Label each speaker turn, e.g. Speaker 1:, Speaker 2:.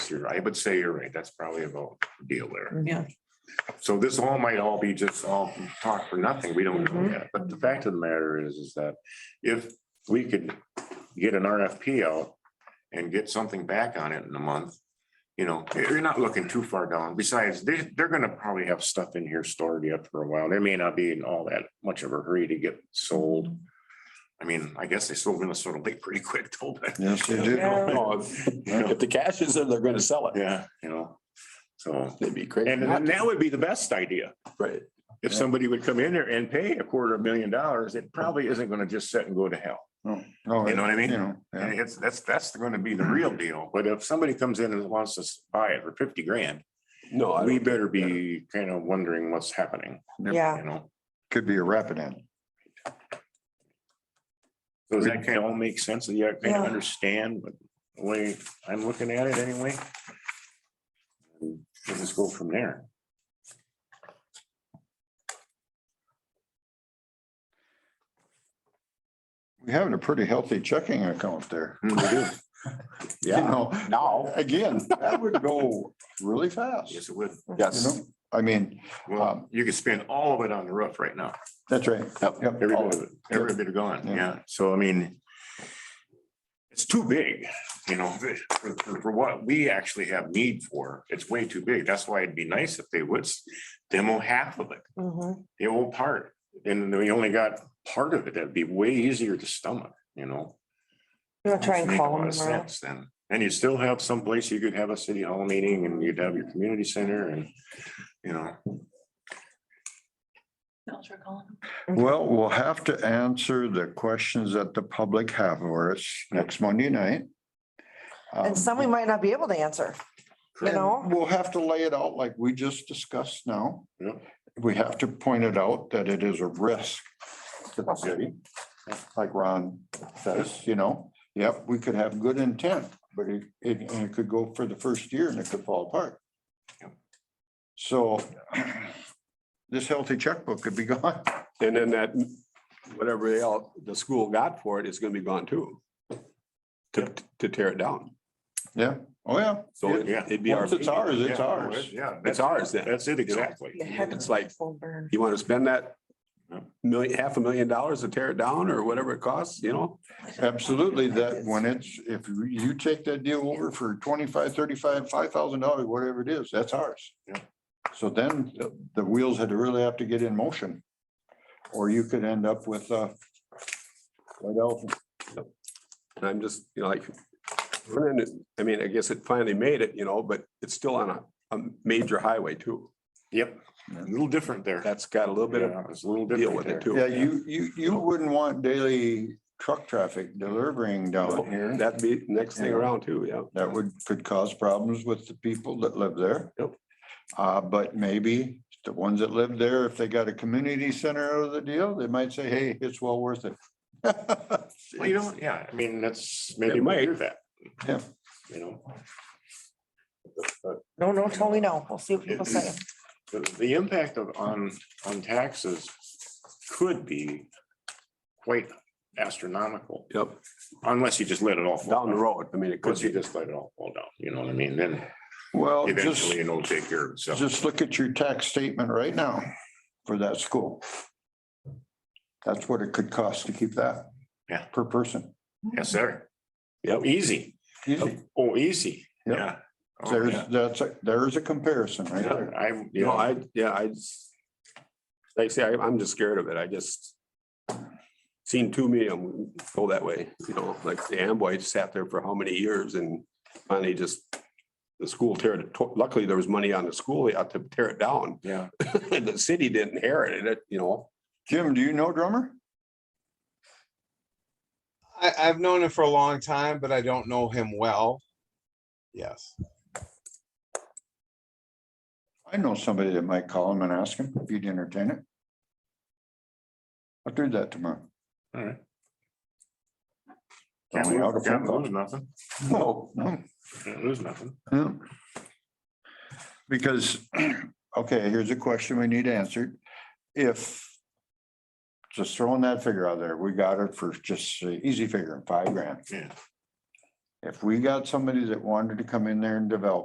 Speaker 1: you're, I would say you're right. That's probably about the deal there.
Speaker 2: Yeah.
Speaker 1: So this all might all be just all talk for nothing. We don't know
Speaker 2: Mhm.
Speaker 1: yet. But the fact of the matter is, is that if we could get an RFP out and get something back on it in a month, you know, you're not looking too far down. Besides, they, they're gonna probably have stuff in here stored yet for a while. They may not be in all that much of a hurry to get sold. I mean, I guess they sold Minnesota Lake pretty quick, told that.
Speaker 3: Yes, they
Speaker 1: You
Speaker 3: did.
Speaker 1: know, it's- you know,
Speaker 4: Oh, If the cash is there, they're gonna sell it.
Speaker 1: Yeah, you know, so,
Speaker 4: They'd be crazy.
Speaker 1: and
Speaker 4: not
Speaker 1: and
Speaker 4: to.
Speaker 1: that would be the best idea.
Speaker 4: Right.
Speaker 1: If somebody would come in there and pay a quarter of a million dollars, it probably isn't gonna just sit and go to hell.
Speaker 3: Oh,
Speaker 1: You know what I mean?
Speaker 3: you know,
Speaker 1: And
Speaker 3: yeah.
Speaker 1: it's, that's, that's gonna be the real deal. But if somebody comes in and wants to s- buy it for fifty grand,
Speaker 4: No. I
Speaker 1: we
Speaker 4: don't-
Speaker 1: better be kind of wondering what's happening,
Speaker 2: Yeah.
Speaker 1: you know?
Speaker 3: Could be a rapid end.
Speaker 1: So does that kind of all make sense? Do you kind
Speaker 2: Yeah.
Speaker 1: of understand what- the way I'm looking at it anyway? And We'll just go from there.
Speaker 3: We're having a pretty healthy checking account there.
Speaker 1: We do.
Speaker 3: You
Speaker 4: Yeah,
Speaker 3: know,
Speaker 4: now,
Speaker 3: again, that would go really fast. You
Speaker 1: Yes, it would.
Speaker 4: yes.
Speaker 3: know, I mean,
Speaker 1: Well, you could spend all of it on the roof right now.
Speaker 3: that's right.
Speaker 4: Yep.
Speaker 3: Yep.
Speaker 1: Every
Speaker 3: all
Speaker 1: bit
Speaker 3: of
Speaker 1: of
Speaker 3: it.
Speaker 1: it, every bit gone,
Speaker 3: Yeah.
Speaker 1: yeah, so I mean. It's too big, you know, for, for- for what we actually have need for, it's way too big, that's why it'd be nice if they would s- demo half of it,
Speaker 2: Mhm.
Speaker 1: the whole part. And we only got part of it, that'd be way easier to stomach, you know.
Speaker 2: You want to try and
Speaker 1: Make a
Speaker 2: call
Speaker 1: lot
Speaker 2: them
Speaker 1: of
Speaker 2: tomorrow?
Speaker 1: sense Then, and you still have some place you could have a city hall meeting and you'd have your community center and, you know,
Speaker 3: Well, we'll have to answer the questions that the public have for us next Monday night. Um,
Speaker 2: And some we might not be able to answer. you know?
Speaker 3: And We'll have to lay it out like we just discussed now.
Speaker 1: Yeah.
Speaker 3: We have to point it out that it is a risk to the city, like Ron says, you know? Yep, we could have good intent, but it, it, and it could go for the first year and it could fall apart.
Speaker 1: Yeah.
Speaker 3: So this healthy checkbook could be gone.
Speaker 4: And then that, whatever they all, the school got for it is gonna be gone too. To, to tear it down.
Speaker 3: Yeah, oh, yeah.
Speaker 4: So it-
Speaker 1: Yeah.
Speaker 4: it'd be our.
Speaker 3: Once it's ours,
Speaker 1: Yeah,
Speaker 3: it's
Speaker 1: no,
Speaker 3: ours.
Speaker 1: it- Yeah.
Speaker 4: It's
Speaker 1: that's-
Speaker 4: ours then.
Speaker 1: That's it, exactly.
Speaker 2: You have
Speaker 4: It's
Speaker 2: a
Speaker 4: like-
Speaker 2: full burn.
Speaker 4: You want to spend that
Speaker 1: Yep.
Speaker 4: million, half a million dollars to tear it down or whatever it costs, you know?
Speaker 3: Absolutely, that when it's, if you take that deal over for twenty-five, thirty-five, five thousand dollars, whatever it is, that's ours.
Speaker 1: Yeah.
Speaker 3: So then the- the wheels had to really have to get in motion. Or you could end up with uh, a white elephant.
Speaker 4: And I'm just, you know, like, we're in it- I mean, I guess it finally made it, you know, but it's still on a, a major highway too.
Speaker 1: Yep, a little different there.
Speaker 4: That's got a little bit of
Speaker 1: Yeah, It's a little
Speaker 4: deal
Speaker 1: different
Speaker 4: with
Speaker 1: there.
Speaker 4: it too.
Speaker 3: Yeah, you, you, you wouldn't want daily truck traffic delivering down here.
Speaker 4: That'd be next thing
Speaker 3: Yeah.
Speaker 4: around too, yeah.
Speaker 3: That would, could cause problems with the people that live there.
Speaker 4: Yep.
Speaker 3: Uh, but maybe the ones that live there, if they got a community center out of the deal, they might say, hey, it's well worth it.
Speaker 1: Well, you know, yeah, I mean, that's maybe
Speaker 4: It
Speaker 1: we'll
Speaker 4: might.
Speaker 1: do that.
Speaker 3: Yeah.
Speaker 1: You know,
Speaker 2: No, no, totally no. We'll see what people
Speaker 1: It-
Speaker 2: say.
Speaker 1: the, the impact of, on, on taxes could be quite astronomical
Speaker 4: Yep,
Speaker 1: unless you just let it all. fall
Speaker 4: down the road. I mean, it could
Speaker 1: Once you
Speaker 4: be.
Speaker 1: just let it all fall down, you know what I mean? Then
Speaker 4: Oh,
Speaker 3: Well, just,
Speaker 1: eventually it'll take care of itself.
Speaker 3: just look at your tax statement right now for that school. That's what it could cost to keep that.
Speaker 1: Yeah.
Speaker 3: Per person.
Speaker 1: Yes, sir.
Speaker 4: Yep.
Speaker 1: Easy.
Speaker 3: Easy.
Speaker 1: Oh, easy.
Speaker 3: Yep.
Speaker 1: Yeah. Oh,
Speaker 3: There's,
Speaker 1: yeah.
Speaker 3: that's, a- there's a comparison right
Speaker 4: Yeah.
Speaker 3: there.
Speaker 1: I'm,
Speaker 4: You
Speaker 1: yeah,
Speaker 4: know, I, yeah, I just, like I say, I- I'm just scared of it. I just seen too many of them go that way, you know, like the Amboy sat there for how many years and finally just the school tear it, luckily there was money on the school, they had to tear it down.
Speaker 1: yeah.
Speaker 4: The city didn't inherit it, you know.
Speaker 3: Jim, do you know drummer?
Speaker 5: I, I've known him for a long time, but I don't know him well. Yes.
Speaker 3: I know somebody that might call him and ask him if he'd entertain it. I'll do that tomorrow.
Speaker 1: All right.
Speaker 3: Tell me how to phone
Speaker 1: Can't
Speaker 3: call.
Speaker 1: lose nothing.
Speaker 3: No, no,
Speaker 1: Can't lose nothing.
Speaker 3: no. Oh, hmm. Because, okay, here's a question we need answered. If, just throwing that figure out there, we got it for just a easy figure, five grand.
Speaker 1: Yeah.
Speaker 3: If we got somebody that wanted to come in there and develop